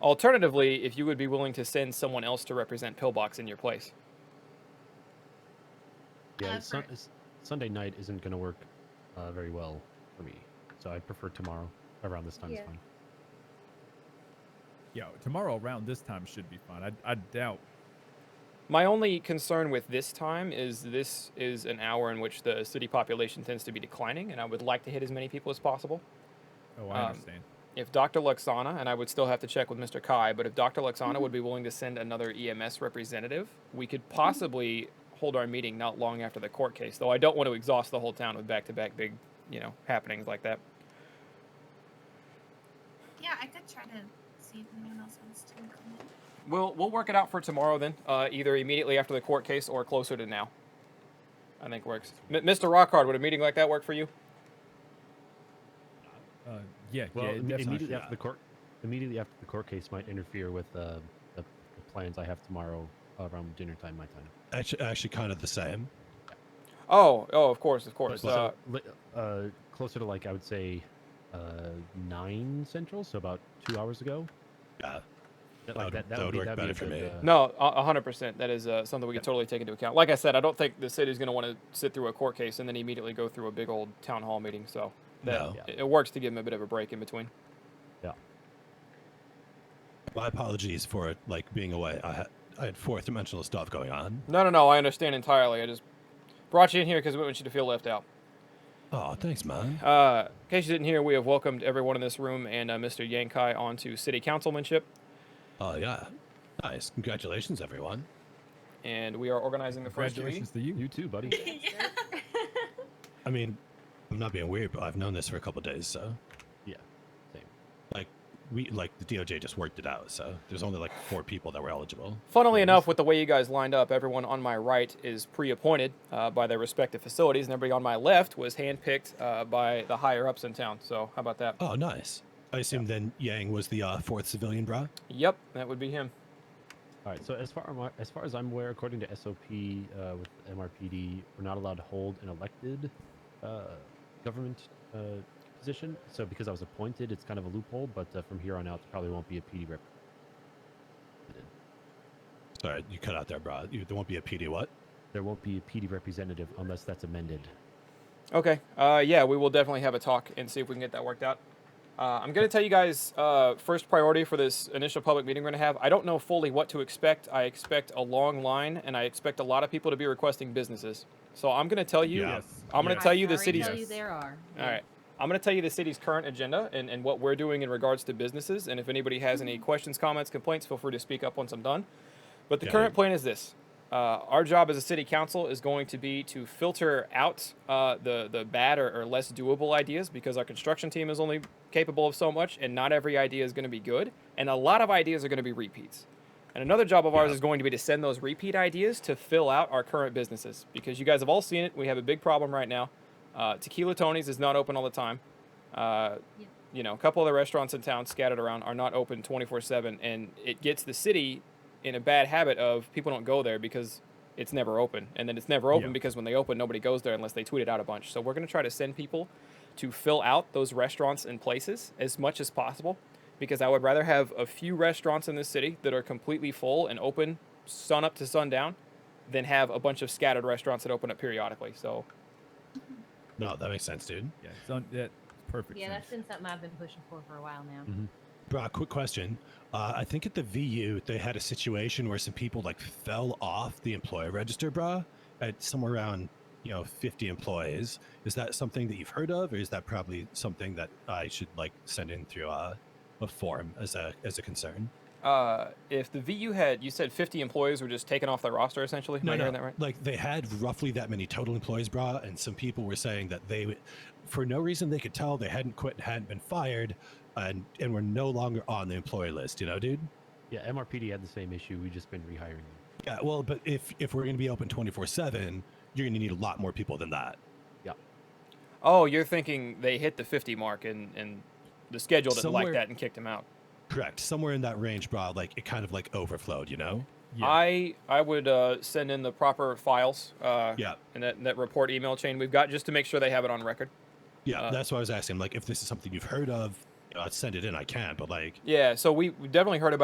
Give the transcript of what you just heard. Alternatively, if you would be willing to send someone else to represent Pillbox in your place. Yeah, Uh, it's sun- for- it's- Sunday night isn't going to work uh, very well for me, so I prefer tomorrow around this time. is Yeah. fine. Yo, tomorrow around this time should be fine. I, I doubt. My only concern with this time is this is an hour in which the city population tends to be declining, and I would like to hit as many people as possible. Oh, I Um, understand. If Dr. Luxana, and I would still have to check with Mr. Kai, but if Dr. Luxana would be willing to send another EMS representative, we could possibly hold our meeting not long after the court case, though I don't want to exhaust the whole town with back to back big, you know, happenings like that. Yeah, I could try to see if anyone else wants to come in. We'll, we'll work it out for tomorrow then, uh, either immediately after the court case or closer to now. I think works. M- Mr. Rockhard, would a meeting like that work for you? Uh, yeah, Well, yeah, it im- definitely immediately should. Uh, after the court, immediately after the court case might interfere with uh, the, the plans I have tomorrow around dinner time, my time. Actually, actually kind of the same. Oh, oh, of course, of But course. Uh, so, li- uh, closer to like I would say uh, nine central, so about two hours ago. Yeah. That, That like, would- that, that, that would would be, work that'd be a better for good, me. uh, No, a hundred percent. That is uh, something we can totally take into account. Like I said, I don't think the city's going to want to sit through a court case and then immediately go through a big old town hall meeting. So that, No. Yeah. it, it works to give them a bit of a break in between. My apologies for it, like being away. I had I had fourth dimensional stuff going on. No, no, no. I understand entirely. I just brought you in here because we want you to feel left out. Oh, thanks, man. Uh, in case you didn't hear, we have welcomed everyone in this room and uh, Mr. Yankai onto city councilmanship, Oh yeah, nice. Congratulations, everyone. and we are organizing the first meeting. Congratulations to you. You too, buddy. yeah. I mean, I'm not being weird, but I've known this for a couple days, so Yeah, same. like we like the DOJ just worked it out. So there's only like four people that were eligible. Funnily enough, with the way you guys lined up, everyone on my right is pre-appointed uh, by their respective facilities, and everybody on my left was handpicked uh, by the higher ups in town. So how about that? Oh, nice. I assume then Yang was the uh, fourth civilian, bra. Yep, that would be him. All right. So as far am I- as far as I'm aware, according to SOP uh, with MRPD, we're not allowed to hold an elected uh, government uh, position. So because I was appointed, it's kind of a loophole. But uh, from here on out, there probably won't be a PD rep. Sorry, you cut out there, bra. You, there won't be a PD. What? There won't be a PD representative unless that's amended. Okay. Uh, yeah, we will definitely have a talk and see if we can get that worked out. Uh, I'm going to tell you guys uh, first priority for this initial public meeting we're going to have. I don't know fully what to expect. I expect a long line, and I expect a lot of people to be requesting businesses. So I'm going to tell you. Yeah. Yes. I'm gonna yes. tell you the I can city's- Tell you there are. All right. I'm going to tell you the city's current agenda and, and what we're doing in regards to businesses. And if anybody has any questions, comments, complaints, feel free to speak up once I'm done. But the Yeah, current I- plan is this. Uh, our job as a city council is going to be to filter out uh, the, the bad or, or less doable ideas because our construction team is only capable of so much and not every idea is going to be good. And a lot of ideas are going to be repeats. And another job of ours Yeah. is going to be to send those repeat ideas to fill out our current businesses because you guys have all seen it. We have a big problem right now. Uh, Tequila Tony's is not open all the time. Uh, Yeah. You know, a couple of the restaurants in town scattered around are not open 24 7, and it gets the city in a bad habit of people don't go there because it's never open. And then it's never open Yeah. because when they open, nobody goes there unless they tweet it out a bunch. So we're going to try to send people to fill out those restaurants and places as much as possible because I would rather have a few restaurants in this city that are completely full and open sun up to sundown than have a bunch of scattered restaurants that open up periodically. So No, that makes sense, dude. Yeah, it's on, that perfect. Yeah, sense. that's been something I've been pushing for for a while now. Bra, quick question. Uh, I think at the VU they had a situation where some people like fell off the employee register, bra, at somewhere around you know 50 employees. Is that something that you've heard of, or is that probably something that I should like send in through uh, a form as a as a concern? Uh, if the VU had, you said 50 employees were just taken off the roster, essentially. Am I hearing that right? Like they had roughly that many total employees, bra, and some people were saying that they, w- for no reason they could tell, they hadn't quit and hadn't been fired, and and were no longer on the employee list. You know, dude. Yeah, MRPD had the same issue. We've just been rehiring them. Yeah, well, but if if we're going to be open 24/7, you're going to need a lot more people than that. Oh, you're thinking they hit the 50 mark and, and the schedule didn't like Somewhere- that and kicked him out. Correct. Somewhere in that range, bro, like it kind of like overflowed, you know? Yeah. I I would uh, send in the proper files uh, Yeah. and that, that report email chain we've got just to make sure they have it on record. Yeah, Uh, that's why I was asking like if this is something you've heard of you know, I'd send it in. I can, but like Yeah, so we we definitely heard about.